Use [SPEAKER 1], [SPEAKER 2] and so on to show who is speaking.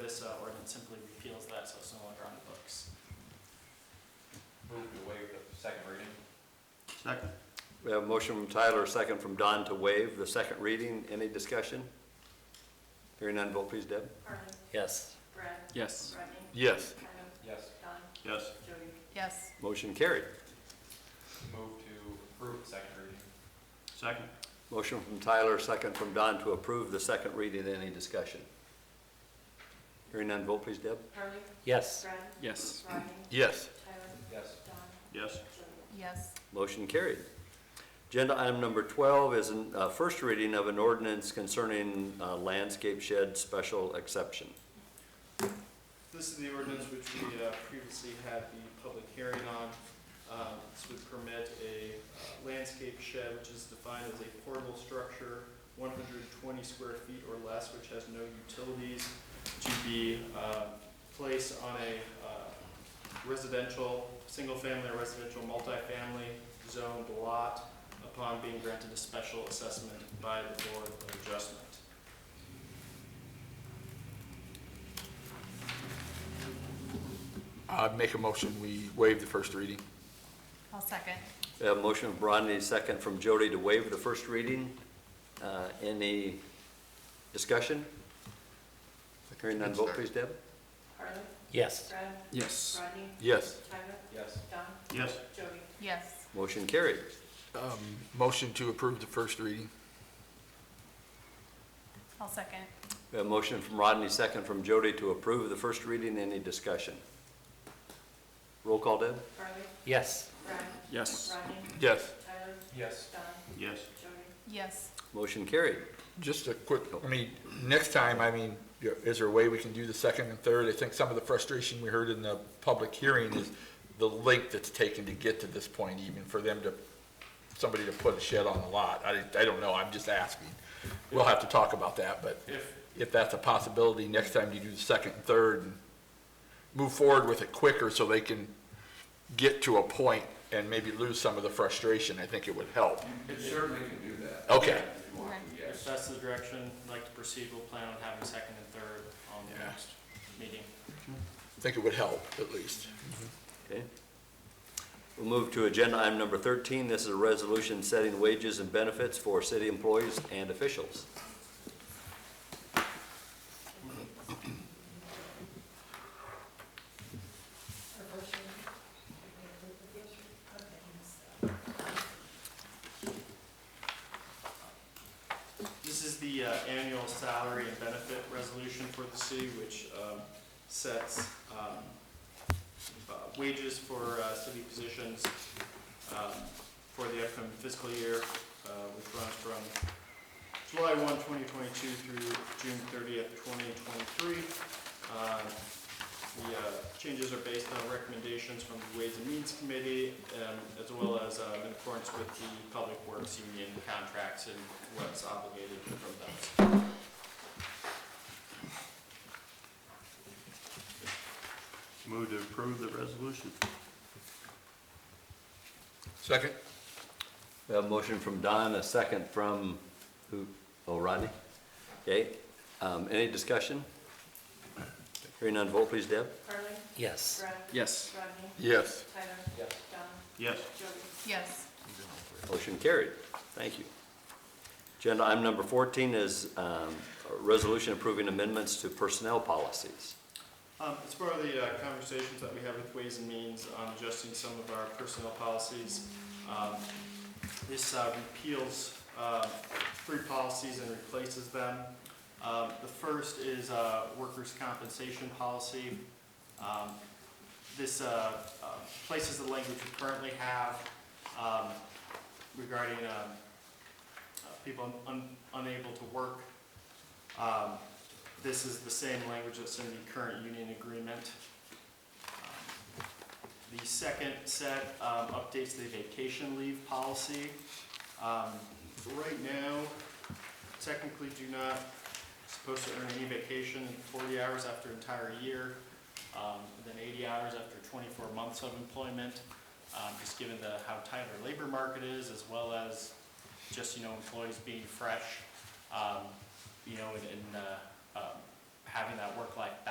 [SPEAKER 1] this uh, ordinance simply repeals that, so it's no longer on the books.
[SPEAKER 2] Move to waive the second reading.
[SPEAKER 3] Second.
[SPEAKER 4] We have a motion from Tyler, a second from Don to waive the second reading. Any discussion? Hearing none, vote please, Deb.
[SPEAKER 5] Harley.
[SPEAKER 4] Yes.
[SPEAKER 5] Brad.
[SPEAKER 1] Yes.
[SPEAKER 5] Rodney.
[SPEAKER 4] Yes.
[SPEAKER 5] Tyler.
[SPEAKER 2] Yes.
[SPEAKER 5] Don.
[SPEAKER 3] Yes.
[SPEAKER 5] Jody.
[SPEAKER 6] yes,
[SPEAKER 4] Motion carried.
[SPEAKER 2] Move to approve the second reading.
[SPEAKER 3] Second.
[SPEAKER 4] Motion from Tyler, second from Don to approve the second reading. Any discussion? Hearing none, vote please, Deb.
[SPEAKER 5] Harley.
[SPEAKER 4] Yes.
[SPEAKER 5] Brad.
[SPEAKER 1] Yes.
[SPEAKER 5] Rodney.
[SPEAKER 4] Yes.
[SPEAKER 5] Tyler.
[SPEAKER 2] Yes.
[SPEAKER 5] Don.
[SPEAKER 3] Yes.
[SPEAKER 5] Jody.
[SPEAKER 6] yes,
[SPEAKER 4] Motion carried. Agenda item number 12 is a first reading of an ordinance concerning uh, landscape shed special exception.
[SPEAKER 1] This is the ordinance which we uh, previously had the public hearing on. Um, This would permit a uh, landscape shed, which is defined as a portable structure, 120 square feet or less, which has no utilities, to be um, placed on a uh, residential, single-family or residential multifamily zoned lot upon being granted a special assessment by the Board of Adjustment.
[SPEAKER 7] i make a motion, we waive the first reading.
[SPEAKER 6] I'll second,
[SPEAKER 4] We have a motion from Rodney, second from Jody to waive the first reading. Uh, Any discussion? Hearing none, vote please, Deb.
[SPEAKER 5] Harley.
[SPEAKER 4] Yes.
[SPEAKER 5] Brad.
[SPEAKER 1] Yes.
[SPEAKER 5] Rodney.
[SPEAKER 7] Yes.
[SPEAKER 5] Tyler.
[SPEAKER 2] Yes.
[SPEAKER 5] Don.
[SPEAKER 3] Yes.
[SPEAKER 5] Jody.
[SPEAKER 6] yes,
[SPEAKER 4] Motion carried.
[SPEAKER 7] Um, Motion to approve the first reading.
[SPEAKER 6] I'll second,
[SPEAKER 4] We have a motion from Rodney, second from Jody to approve the first reading. Any discussion? Roll call, Deb.
[SPEAKER 5] Harley.
[SPEAKER 4] Yes.
[SPEAKER 5] Brad.
[SPEAKER 1] Yes.
[SPEAKER 5] Rodney.
[SPEAKER 7] Yes.
[SPEAKER 5] Tyler.
[SPEAKER 2] Yes.
[SPEAKER 5] Don.
[SPEAKER 3] Yes.
[SPEAKER 5] Jody.
[SPEAKER 6] yes,
[SPEAKER 4] Motion carried.
[SPEAKER 7] Just a quick, I mean, next time, I mean, is there a way we can do the second and third? I think some of the frustration we heard in the public hearing is the length that's taken to get to this point even for them to, somebody to put a shed on the lot. I, I don't know, I'm just asking. We'll have to talk about that, but
[SPEAKER 1] If,
[SPEAKER 7] if that's a possibility, next time you do the second and third, and move forward with it quicker so they can get to a point and maybe lose some of the frustration, I think it would help.
[SPEAKER 8] It certainly can do that.
[SPEAKER 7] Okay.
[SPEAKER 8] If you want to,
[SPEAKER 1] If
[SPEAKER 8] yes.
[SPEAKER 1] that's the direction you'd like to proceed, we'll plan on having second and third on the
[SPEAKER 7] Yeah.
[SPEAKER 1] next meeting.
[SPEAKER 7] I think it would help, at least.
[SPEAKER 4] Okay. We'll move to agenda item number 13. This is a resolution setting wages and benefits for city employees and officials.
[SPEAKER 1] This is the uh, annual salary and benefit resolution for the city, which um, sets um, uh, wages for uh, city positions um, for the upcoming fiscal year, uh, which runs from July 1, 2022 through June 30th, 2023. Um, The uh, changes are based on recommendations from the Ways and Means Committee, um, as well as um, in accordance with the Public Works Union contracts and what's obligated from them.
[SPEAKER 3] Move to approve the resolution.
[SPEAKER 7] Second?
[SPEAKER 4] We have a motion from Don, a second from, who, oh, Rodney? Okay, um, any discussion? Hearing none, vote please, Deb.
[SPEAKER 5] Harley.
[SPEAKER 4] Yes.
[SPEAKER 5] Brad.
[SPEAKER 1] Yes.
[SPEAKER 5] Rodney.
[SPEAKER 7] Yes.
[SPEAKER 5] Tyler.
[SPEAKER 2] Yes.
[SPEAKER 5] Don.
[SPEAKER 3] Yes.
[SPEAKER 5] Jody.
[SPEAKER 6] yes,
[SPEAKER 4] Motion carried. Thank you. Agenda item number fourteen is, um, a resolution approving amendments to personnel policies.
[SPEAKER 1] Um, As part of the uh, conversations that we have with Ways and Means on adjusting some of our personnel policies, um, this uh, repeals uh, three policies and replaces them. Um, The first is uh, workers' compensation policy. Um, This uh, uh, places the language we currently have um, regarding um, uh, people un- unable to work um, this is the same language that's in the current union agreement. Um, The second set um, updates the vacation leave policy. Um, Right now, technically do not, supposed to earn any vacation in 40 hours after entire year, um, and then 80 hours after 24 months of employment, Um, just given the, how tight our labor market is, as well as just, you know, employees being fresh. um, you know, and, and uh, um, having that work-life balance.